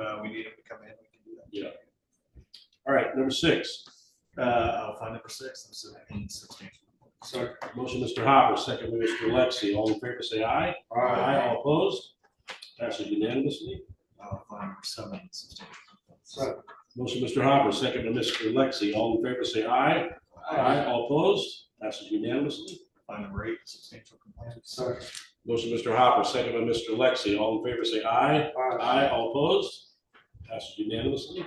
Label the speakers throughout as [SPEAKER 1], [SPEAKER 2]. [SPEAKER 1] uh, we need them to come in, we can do that.
[SPEAKER 2] Yeah.
[SPEAKER 1] All right, number six, uh, I'll find number six, I'm submitting substantial.
[SPEAKER 2] Sorry, motion Mr. Hopper, second by Mr. Lexi, all in favor say aye.
[SPEAKER 1] Aye.
[SPEAKER 2] All opposed? Passes unanimously.
[SPEAKER 1] I'll find number seven, substantial.
[SPEAKER 2] Motion Mr. Hopper, second by Mr. Lexi, all in favor say aye. All opposed? Passes unanimously.
[SPEAKER 1] Find number eight, substantial compliance.
[SPEAKER 2] Motion Mr. Hopper, second by Mr. Lexi, all in favor say aye. Aye. All opposed? Passes unanimously.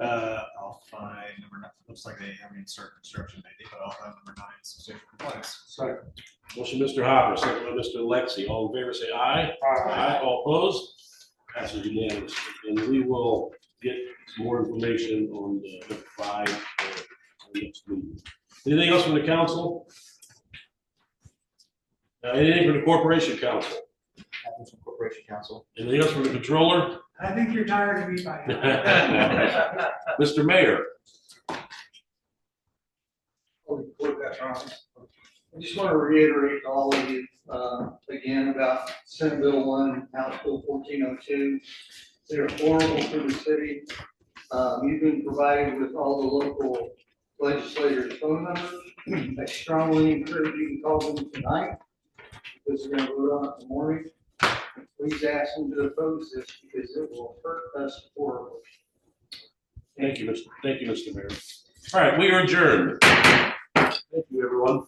[SPEAKER 1] Uh, I'll find number nine, looks like they haven't even started construction maybe, but I'll find number nine, substantial compliance.
[SPEAKER 2] Motion Mr. Hopper, second by Mr. Lexi, all in favor say aye. Aye, all opposed? Passes unanimously. And we will get some more information on the number five for the next meeting. Anything else from the council? Uh, Anything from the corporation council?
[SPEAKER 3] Happens from Corporation Council.
[SPEAKER 2] Anything else from the controller?
[SPEAKER 4] I think you're tired of me by now.
[SPEAKER 2] Mr. Mayor?
[SPEAKER 5] I'll record that, Ron. I just want to reiterate to all of you, uh, again about Senate Bill one, and House Bill fourteen oh two. They're horrible for the city. Um, you've been provided with all the local legislators' phone numbers. I strongly encourage you to call them tonight, because they're gonna vote on it tomorrow. Please ask them to oppose this, because it will hurt us horribly.
[SPEAKER 2] Thank you, Mr. Thank you, Mr. Mayor. All right, we are adjourned. Thank you, everyone.